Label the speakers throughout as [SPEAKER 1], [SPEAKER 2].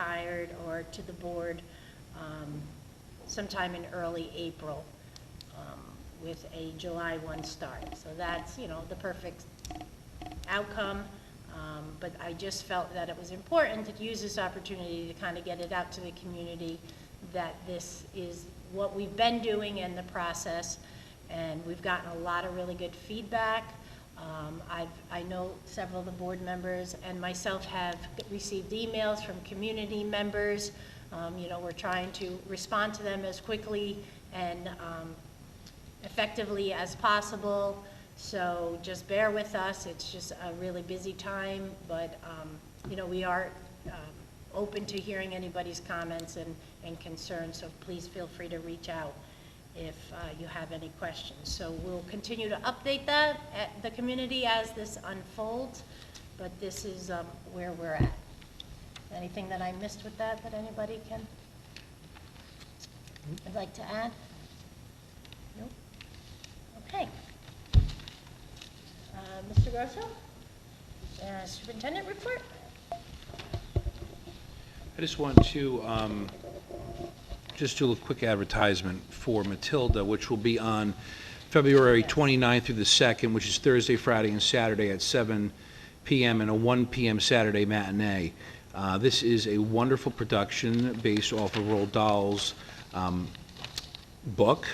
[SPEAKER 1] hired or to the board um, sometime in early April um, with a July 1 start. So that's, you know, the perfect outcome. Um, But I just felt that it was important to use this opportunity to kind of get it out to the community that this is what we've been doing in the process. And we've gotten a lot of really good feedback. Um, I've, I know several of the board members and myself have received emails from community members. Um, You know, we're trying to respond to them as quickly and um, effectively as possible. So just bear with us. It's just a really busy time, but, um, you know, we are um, open to hearing anybody's comments and, and concerns, so please feel free to reach out if uh, you have any questions. So we'll continue to update that, at the community as this unfolds, but this is um, where we're at. Anything that I missed with that, that anybody can, would like to add? Nope. Okay. Uh, Mr. Grosso? Uh, Superintendent report?
[SPEAKER 2] I just want to, um, just do a quick advertisement for Matilda, which will be on February 29th through the 2nd, which is Thursday, Friday, and Saturday at 7 PM and a 1 PM Saturday matinee. Uh, This is a wonderful production based off of Roald Dahl's um, book,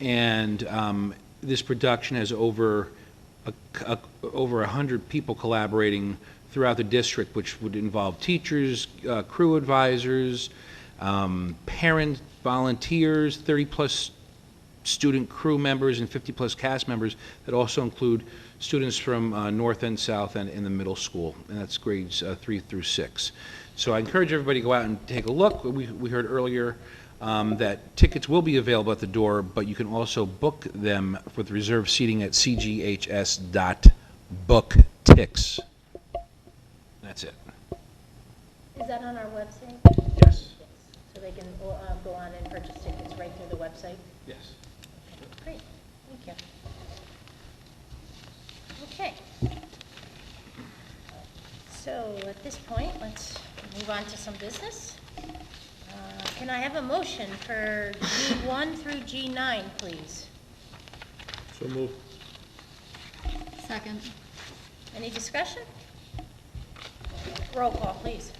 [SPEAKER 2] and um, this production has over a, a, over 100 people collaborating throughout the district, which would involve teachers, uh, crew advisors, um, parent volunteers, 30-plus student crew members, and 50-plus cast members that also include students from uh, North End, South End, and the middle school, and that's grades uh, three through six. So I encourage everybody to go out and take a look. We we heard earlier um, that tickets will be available at the door, but you can also book them with reserved seating at cghs.booktix. That's it.
[SPEAKER 1] Is that on our website?
[SPEAKER 2] Yes.
[SPEAKER 1] So they can uh, go on and purchase tickets right through the website?
[SPEAKER 2] Yes.
[SPEAKER 1] Great, thank you. Okay. So at this point, let's move on to some business. Uh, Can I have a motion for G1 through G9, please?
[SPEAKER 2] So move.
[SPEAKER 3] Second.
[SPEAKER 1] Any discussion? Roll call, please.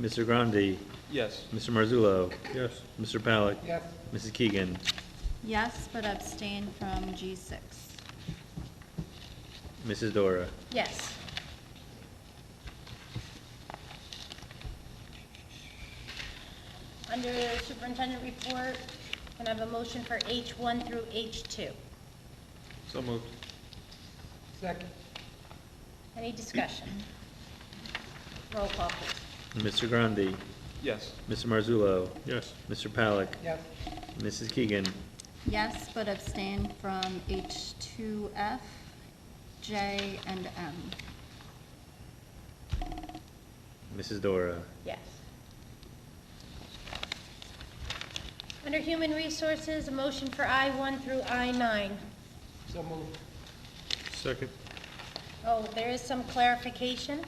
[SPEAKER 4] Mr. Grandi,
[SPEAKER 2] Yes.
[SPEAKER 4] Mr. Marzullo. Yes. Mr. Pollak.
[SPEAKER 2] Yes.
[SPEAKER 4] Mrs. Keegan,
[SPEAKER 3] Yes, but abstain from G6.
[SPEAKER 4] Mrs. Dora,
[SPEAKER 1] Yes. Under superintendent report, can I have a motion for H1 through H2?
[SPEAKER 4] So moved.
[SPEAKER 1] Any discussion? Roll call, please.
[SPEAKER 4] Mr. Grandi,
[SPEAKER 2] Yes.
[SPEAKER 4] Mr. Marzullo.
[SPEAKER 5] Yes.
[SPEAKER 4] Mr. Pollak.
[SPEAKER 5] Yes.
[SPEAKER 4] Mrs. Keegan,
[SPEAKER 3] Yes, but abstain from H2F, J, and M.
[SPEAKER 4] Mrs. Dora,
[SPEAKER 1] Yes. Under human resources, a motion for I1 through I9.
[SPEAKER 5] So moved. Second.
[SPEAKER 1] Oh, there is some clarification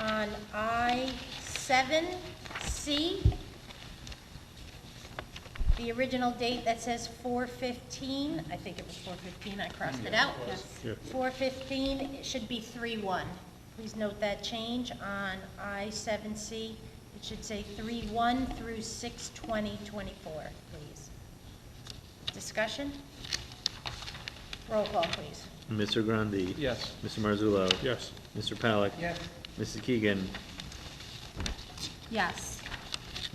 [SPEAKER 1] on I-7C. The original date that says 415, I think it was 415, I crossed it out.
[SPEAKER 5] Yeah.
[SPEAKER 1] 415, it should be 31. Please note that change on I-7C. It should say 31 through 6/20/24, please. Discussion? Roll call, please.
[SPEAKER 4] Mr. Grandi.
[SPEAKER 2] Yes.
[SPEAKER 4] Mr. Marzullo.
[SPEAKER 5] Yes.
[SPEAKER 4] Mr. Pollak.
[SPEAKER 5] Yes.
[SPEAKER 4] Mrs. Keegan,
[SPEAKER 3] Yes,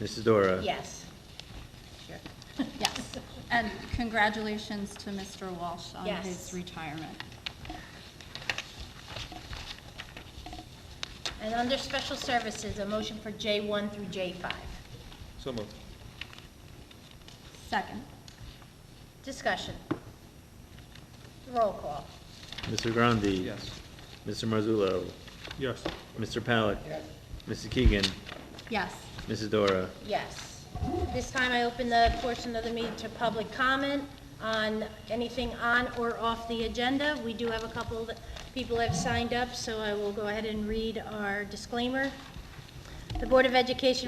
[SPEAKER 4] Mrs. Dora.
[SPEAKER 1] Yes.
[SPEAKER 3] yes. And congratulations to Mr. Walsh on
[SPEAKER 1] Yes.
[SPEAKER 3] his retirement.
[SPEAKER 1] And under special services, a motion for J1 through J5.
[SPEAKER 2] So moved.
[SPEAKER 3] Second.
[SPEAKER 1] Discussion. Roll call.
[SPEAKER 4] Mr. Grandi. Mr. Marzullo.
[SPEAKER 5] Yes.
[SPEAKER 4] Mr. Pollak. Mrs. Keegan,
[SPEAKER 3] Yes,
[SPEAKER 4] Mrs. Dora,
[SPEAKER 1] Yes. This time I open the portion of the meeting to public comment on anything on or off the agenda. We do have a couple of people that have signed up, so I will go ahead and read our disclaimer. The Board of Education